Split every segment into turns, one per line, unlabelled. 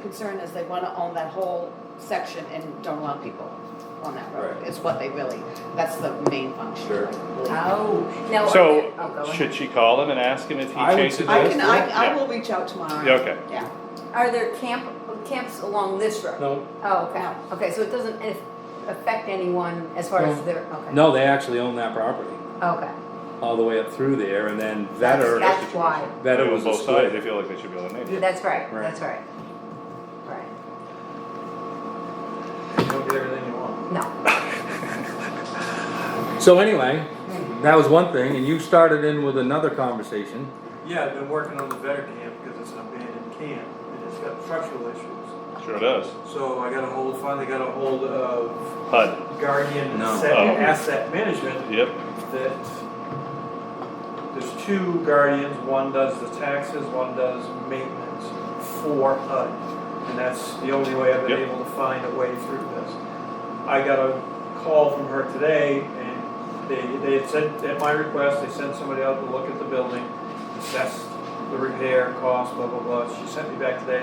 concern is they wanna own that whole section and don't want people on that road.
Right.
It's what they really, that's the main function. Uh,
Sure.
Oh, now. are
So,
there- oh, go ahead.
should she call him and ask him if he
I would
changes?
I
suggest-
it?
can, I, I
Yeah.
will reach out tomorrow.
Yeah, okay.
Yeah,
Are there camp, camps along this road?
No,
Oh, okay, okay, so it doesn't aff- affect anyone as far as
No.
their, okay.
no, they actually own that property
Okay.
all the way up through there, and then Vetter.
That's that's why,
Vetter was a
both sides, they
split.
feel like they should be able to name it.
that's right,
Right.
that's right. Right,
You don't get everything you want.
no,
So anyway, that was one thing, and you started in with another conversation.
Yeah, I've been working on the better camp because it's an abandoned camp and it's got structural issues.
Sure does.
So I got a hold, finally got a hold of
HUD,
Guardian
No.
Asset,
Oh.
Asset Management
yep,
that there's two guardians, one does the taxes, one does maintenance for HUD. And that's the only way I've been
Yep.
able to find a way through this. I got a call from her today and they, they had said, at my request, they sent somebody out to look at the building, assess the repair cost, blah, blah, blah. She sent me back today,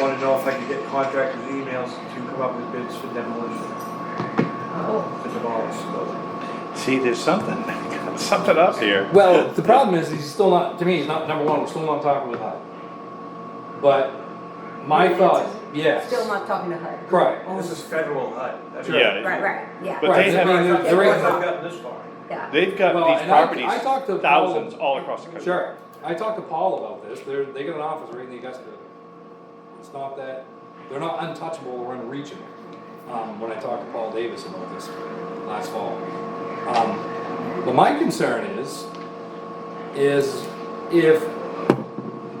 wanted to know if I could get contractors' emails to come up with bids for demolition,
oh,
to demolish the building.
see, there's something, something up here.
Well, the problem is, he's still not, to me, he's not, number one, we're still not talking with HUD. But my
Yeah,
thought,
that's-
yes.
still not talking to her.
Right.
This is federal HUD. That's
Yeah.
right.
Right, right, yeah,
But they
Right, I mean,
have,
That's
there-
why
there
I've
is-
gotten this far.
yeah,
they've got
Well,
these
and I- I
properties,
talked to Paul-
thousands all across the country.
Sure. I talked to Paul about this. They're, they got an office right in the Augusta. It's not that, they're not untouchable or unreachable. Um, when I talked to Paul Davis about this last fall. Um, but my concern is, is if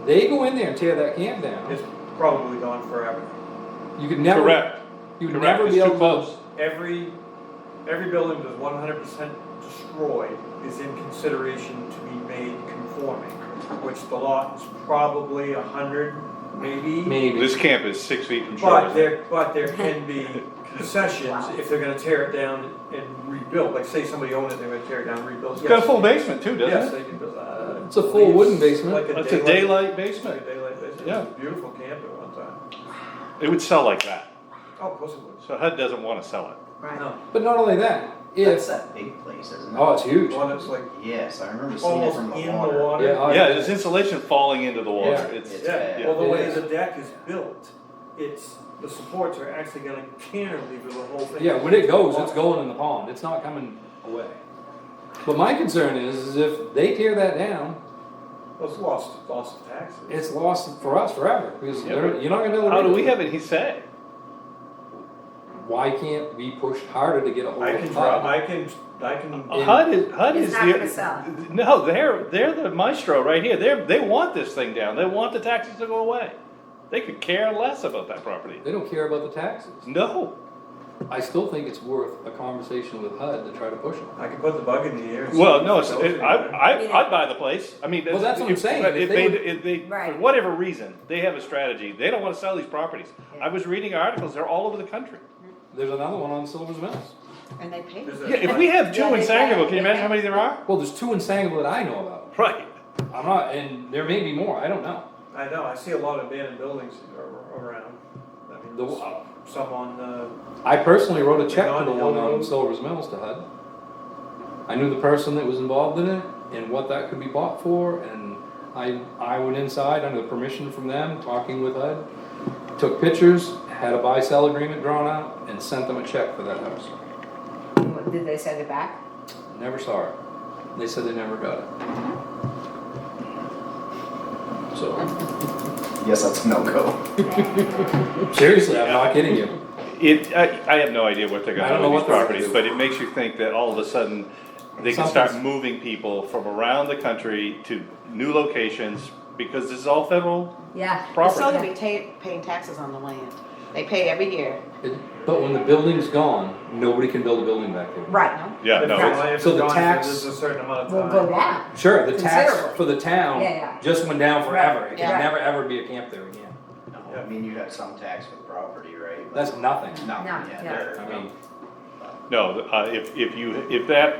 they go in there and tear that camp down,
It's probably gone forever.
you could never.
Correct,
You would
correct,
never
it's
be able
too
to.
close.
Every, every building that's one hundred percent destroyed is in consideration to be made conforming, which the lot is probably a hundred, maybe.
Maybe.
This camp is six feet from
But
shore.
there, but there can be concessions if they're gonna tear it down and rebuild, like say somebody owned it, they're gonna tear it down, rebuild.
It's got a
Yes.
full basement too,
Yes,
doesn't it?
they can build, uh.
It's a full wooden basement.
Like
It's a
daylight-
daylight
Like a
basement,
daylight basement.
Yeah.
It was a beautiful camp at one time.
it would sell like that,
Oh, of course it was.
so HUD doesn't wanna sell it.
right.
No,
But not only that,
That's
if,
that big place, isn't it?
oh, it's huge.
the one that's like
Yes, I remember seeing it
almost
from
in
the
the
water.
water.
oh,
Yeah, there's insulation falling into the water,
Yeah.
it's,
Yeah,
Yeah.
well, the way
Yeah.
the deck is built, it's, the supports are actually gonna cantilever the whole thing.
Yeah, when it goes, it's going in the pond, it's not coming away. But my concern is, is if they tear that down,
Well, It's lost, lost taxes.
it's lost for us forever, because they're, you're not gonna be able to.
how do we
it.
have any say?
Why can't we push harder to get a hold
I can
of
drop,
HUD?
I can, I can,
In-
HUD is, HUD
It's
is
not gonna sell.
the, no, they're, they're the maestro right here, they're, they want this thing down, they want the taxes to go away. They could care less about that property,
They don't care about the taxes.
no,
I still think it's worth a conversation with HUD to try to push them.
I can put the bug in the air. and see
well,
if
no,
it
it's,
goes
it, I,
anywhere.
I, I'd buy the place, I mean.
Well, that's what I'm
if-
saying.
but
If
If
they
they,
would-
if they, for
Right.
whatever reason, they have a strategy, they don't wanna sell these properties. I was reading articles, they're all over the country.
There's another one on Silver's Mills.
and they pay.
There's a-
Yeah, if we have two
Yeah,
in
they-
Sangerville, can you imagine how many there are?
Well, there's two in Sangerville that I know about.
Right.
I'm not, and there may be more, I don't know.
I know, I see a lot of abandoned buildings ar- around. I mean,
The-
there's some on, uh,
I personally wrote a check to
Beyond
the one
Hill
on
Road.
Silver's Mills to HUD. I knew the person that was involved in it and what that could be bought for, and I, I went inside under permission from them, talking with HUD. Took pictures, had a buy-sell agreement drawn out, and sent them a check for that house.
What, Did they send it back?
Never saw it. They said they never got it. So,
Yes, that's a no-go.
seriously, I'm not kidding you.
It, I, I have no idea what they're
I
gonna
don't
do
know
with these
what they're
properties,
gonna
but it makes you think that all of a sudden, they can start
Something's-
moving people from around the country to new locations, because this is all federal
Yeah.
They're still
property.
gonna be ta- paying taxes on the land. They pay every year.
It- But when the building's gone, nobody can build a building back there.
Right,
Yeah,
if
no, it's,
it's
so the
gone for
tax-
There's a certain amount
we'll
of
go
time.
down.
Sure, the tax
Considerably.
for the
Yeah,
town
yeah.
just went down forever. It
Yeah.
can never, ever be a camp there again.
No, I mean, you have some tax with property, right?
That's nothing.
No,
No,
yeah,
yeah.
there.
I mean,
no, uh, if, if you, if that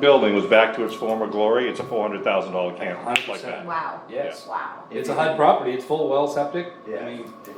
building was back to its former glory, it's a four hundred thousand dollar camp, like
100%.
that.
Wow,
yes.
wow.
It's a HUD property, it's full well septic. I
Yeah.
mean,